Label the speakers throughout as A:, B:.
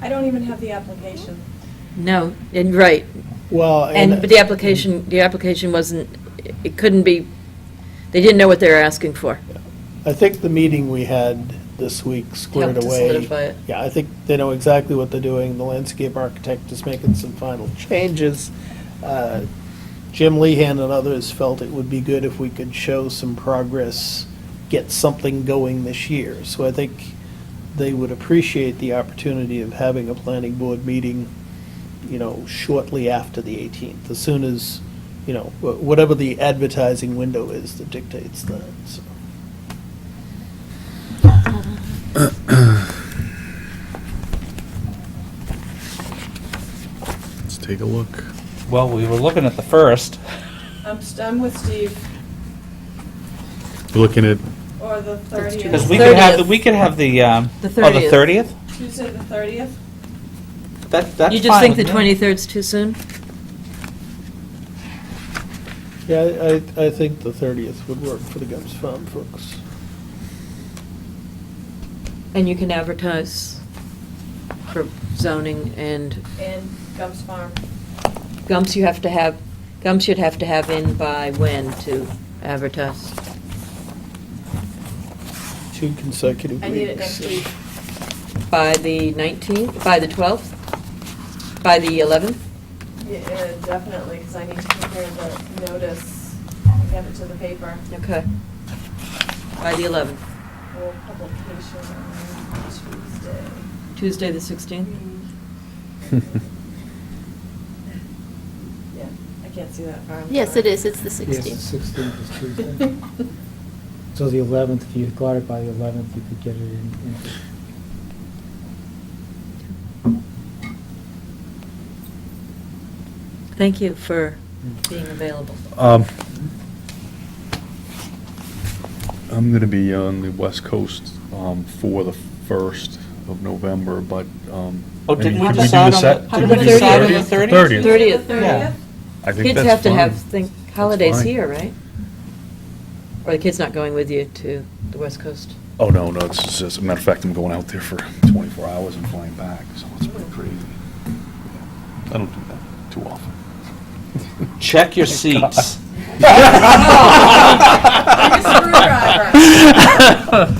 A: I don't even have the application.
B: No, and, right.
C: Well,
B: And, but the application, the application wasn't, it couldn't be, they didn't know what they were asking for.
C: I think the meeting we had this week squared
B: Helped to
C: away.
B: solidify it.
C: Yeah, I think they know exactly what they're doing. The landscape architect is making some final changes. Uh, Jim Lehan and others felt it would be good if we could show some progress, get something going this year. So I think they would appreciate the opportunity of having a planning board meeting, you know, shortly after the 18th, as soon as, you know, wh- whatever the advertising window is that dictates that, so.
D: Let's take a look.
E: Well, we were looking at the first.
A: I'm, st- I'm with Steve,
D: We're Looking at,
A: or the
B: That's too
A: 30th.
E: Because we could have, the
B: 30th.
E: we could have the, um,
B: The
E: oh, the
B: 30th.
E: 30th?
A: Tuesday, the 30th?
E: That, that's fine.
B: You just think the
E: with me.
B: 23rd's too soon?
C: Yeah, I, I- I think the 30th would work for the Gums Farm folks.
B: And you can advertise for zoning and
A: And Gumps Farm.
B: Gumps you have to have, Gumps you'd have to have in by when to advertise?
C: Two consecutive weeks.
A: I need it next week.
B: By the 19th, by the 12th, by the 11th?
A: Yeah, uh, definitely, because I need to prepare the notice, and get it to the paper,
B: Okay. By the 11th,
A: for publication on Tuesday.
B: Tuesday, the 16th?
A: Yeah, I can't see that far. I'm
F: Yes,
A: sorry.
F: it is, it's the
G: Yes,
F: 16th.
G: the 16th is Tuesday. So the 11th, if you got it by the 11th, you could get it in. in-
B: Thank you for being available.
D: um, I'm going to be on the West Coast um, for the 1st of November, but. um,
E: Oh,
D: I mean,
E: didn't we
D: could
E: decide
D: do the
E: on the-
D: se-
E: how
D: could
B: did
D: we
B: we
D: do
B: decide on the
D: 30th?
B: 30th? 30th.
A: The
B: 30th.
A: thirtieth?
D: I think
B: Kids
D: that's
B: have to
D: fine.
B: have think, holidays
D: fine.
B: here, right? Or the kid's not going with you to the West Coast?
D: Oh, no, no, it's just, as a matter of fact, I'm going out there for 24 hours and flying back, so it's pretty crazy. I don't do that too often.
E: Check
B: Oh,
E: your seats.
A: Like a screwdriver.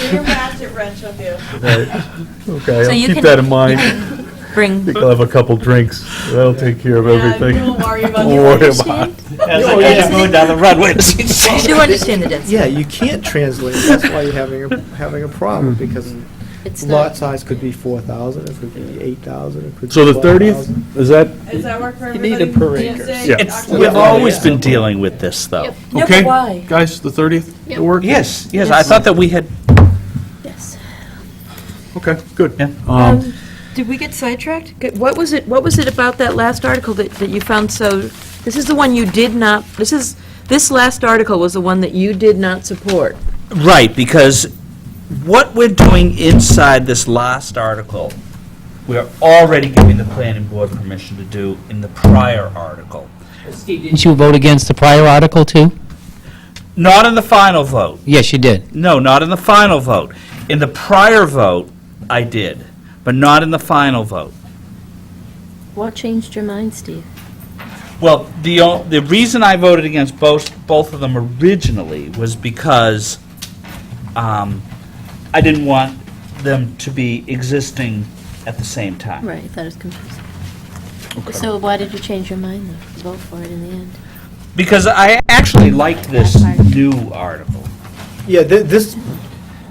A: Get your ratchet wrench up you.
D: Right. Okay,
F: So
D: I'll
F: you
D: keep
F: can-
D: that in mind.
F: you
D: I think I'll have a couple drinks. That'll take care of
A: Yeah,
D: everything.
A: don't worry about
D: Don't
A: your
D: worry about
F: Understand?
D: it.
E: As
C: Oh,
E: I get
C: yeah.
E: going down the runway. You
F: do understand the density.
G: Yeah, you can't translate, that's why you're having, a having a problem,
D: Mm-hmm.
G: because
F: It's
G: lot
F: not,
G: size could be 4,000, it could be 8,000, it could be
D: So the
G: 12,000.
D: thirtieth, is that,
A: Does that work for
C: You need
A: everybody?
C: a per acre.
A: Tuesday,
D: Yeah.
E: It's,
A: October
E: we've always
A: 30th?
E: been dealing with this, though.
F: Yep.
B: No, but
D: okay?
B: why?
D: Guys, the thirtieth,
F: Yep.
D: it work?
E: Yes, yes, I thought that we had,
F: yes.
D: Okay, good.
E: Yeah.
D: Um,
B: Did we get sidetracked? Good- What was it, what was it about that last article that, that you found so, this is the one you did not, this is, this last article was the one that you did not support.
E: right, because what we're doing inside this last article, we're already giving the planning board permission to do in the prior article.
H: Steve, didn't you vote against the prior article, too?
E: Not in the final vote.
H: Yes, you did.
E: No, not in the final vote. In the prior vote, I did, but not in the final vote.
F: What changed your mind, Steve?
E: Well, the, o- the reason I voted against both, both of them originally was because um, I didn't want them to be existing at the same time.
F: Right, I thought it was confusing. So why did you change your mind, though, to vote for it in the end?
E: Because I actually liked this new article.
G: Yeah, thi- this,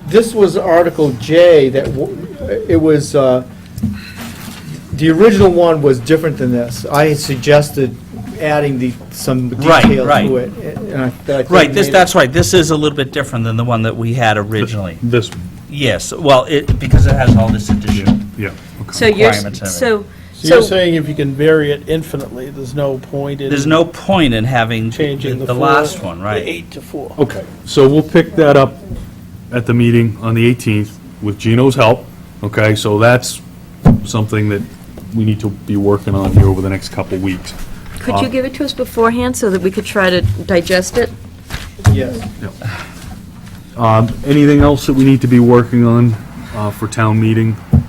G: this was Article J that, w- it was, uh, the original one was different than this. I had suggested adding the, some
E: Right,
G: detail
E: right.
G: to it. and I- that I think
E: Right, this,
G: made it-
E: that's right, this is a little bit different than the one that we had originally.
D: this,
E: Yes, well, it, because it has all this additional
D: yeah, okay.
B: So you're,
E: Requirements and
B: s- so,
C: So you're
B: so,
C: saying if you can vary it infinitely, there's no point in.
E: There's no point in having
C: Changing the
E: the
C: four-
E: last one,
C: The
E: right?
C: eight to four.
D: Okay, so we'll pick that up at the meeting on the eighteenth with Gino's help, okay? So that's something that we need to be working on here over the next couple weeks.
B: could
D: Uh,
B: you give it to us beforehand so that we could try to digest it?
G: Yes.
D: Um, anything else that we need to be working on, uh, for town meeting?